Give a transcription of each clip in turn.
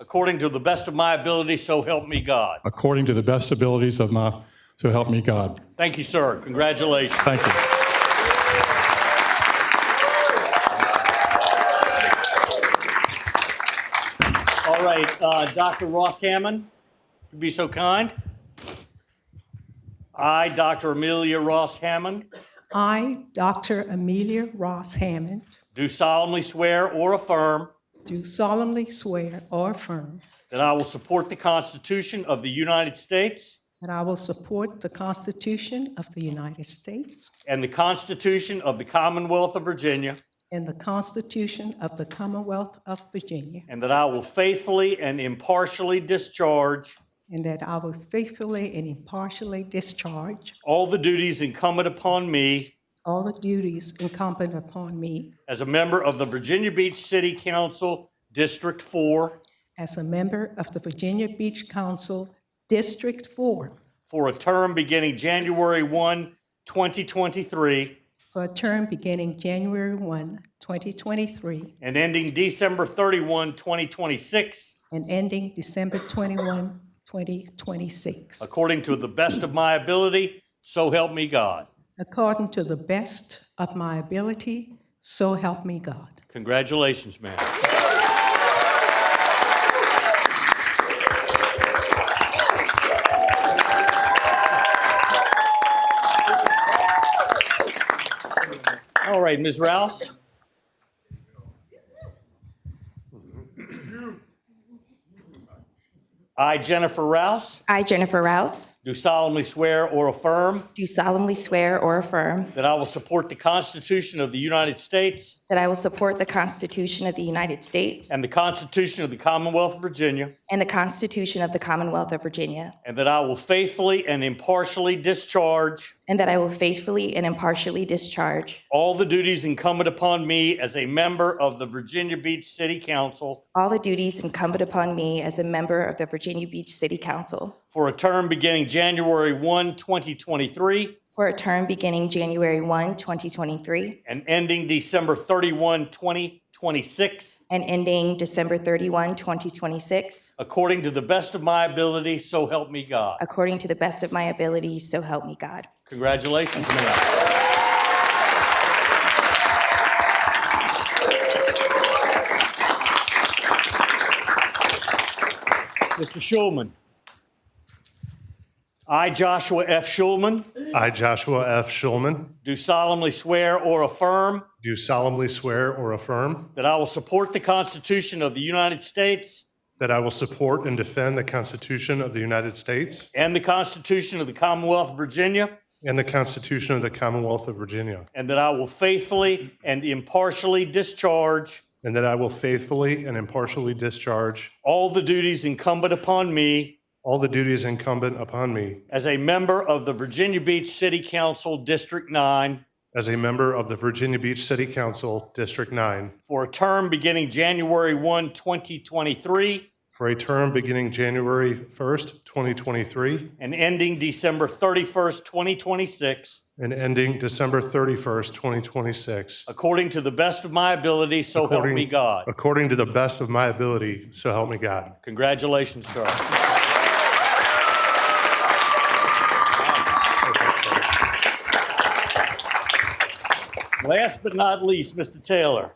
according to the best of my ability, so help me God. according to the best abilities of my, so help me God. Thank you, sir. Congratulations. Thank you. All right, uh, Dr. Ross Hammond, if you'd be so kind. I, Dr. Amelia Ross Hammond, I, Dr. Amelia Ross Hammond, do solemnly swear or affirm do solemnly swear or affirm that I will support the Constitution of the United States that I will support the Constitution of the United States and the Constitution of the Commonwealth of Virginia, and the Constitution of the Commonwealth of Virginia, and that I will faithfully and impartially discharge and that I will faithfully and impartially discharge all the duties incumbent upon me all the duties incumbent upon me as a member of the Virginia Beach City Council District 4 as a member of the Virginia Beach Council District 4 for a term beginning January 1, 2023, for a term beginning January 1, 2023, and ending December 31, 2026, and ending December 21, 2026, according to the best of my ability, so help me God. according to the best of my ability, so help me God. Congratulations, ma'am. All right, Ms. Rouse? I, Jennifer Rouse, I, Jennifer Rouse, do solemnly swear or affirm do solemnly swear or affirm that I will support the Constitution of the United States that I will support the Constitution of the United States and the Constitution of the Commonwealth of Virginia, and the Constitution of the Commonwealth of Virginia, And that I will faithfully and impartially discharge and that I will faithfully and impartially discharge all the duties incumbent upon me as a member of the Virginia Beach City Council all the duties incumbent upon me as a member of the Virginia Beach City Council for a term beginning January 1, 2023, for a term beginning January 1, 2023, and ending December 31, 2026, and ending December 31, 2026, according to the best of my ability, so help me God. according to the best of my ability, so help me God. Congratulations, Mayor. Mr. Schulman. I, Joshua F. Schulman, I, Joshua F. Schulman, do solemnly swear or affirm do solemnly swear or affirm that I will support the Constitution of the United States that I will support and defend the Constitution of the United States and the Constitution of the Commonwealth of Virginia, and the Constitution of the Commonwealth of Virginia, and that I will faithfully and impartially discharge and that I will faithfully and impartially discharge all the duties incumbent upon me all the duties incumbent upon me as a member of the Virginia Beach City Council District 9 as a member of the Virginia Beach City Council, District 9, for a term beginning January 1, 2023, for a term beginning January 1st, 2023, and ending December 31st, 2026, and ending December 31st, 2026. according to the best of my ability, so help me According- God. According to the best of my ability, so help me God. Congratulations, sir. Last but not least, Mr. Taylor.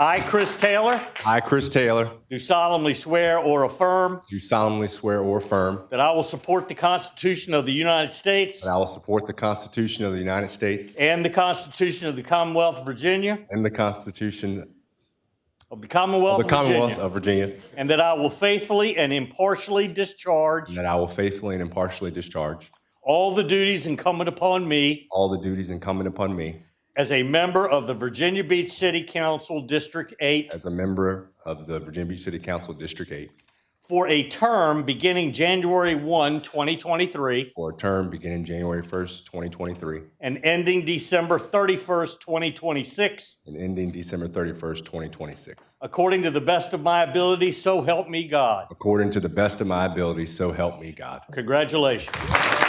I, Chris Taylor, I, Chris Taylor, do solemnly swear or affirm do solemnly swear or affirm that I will support the Constitution of the United States that I will support the Constitution of the United States and the Constitution of the Commonwealth of Virginia, and the Constitution of the of Commonwealth the of Commonwealth Virginia, of Virginia, and that I will faithfully and impartially discharge and that I will faithfully and impartially discharge all the duties incumbent upon me all the duties incumbent upon me as a member of the Virginia Beach City Council District 8 as a member of the Virginia Beach City Council District 8 for a term beginning January 1, 2023, for a term beginning January 1st, 2023, and ending December 31st, 2026, and ending December 31st, 2026, according to the best of my ability, so help me God. according to the best of my ability, so help me God. Congratulations.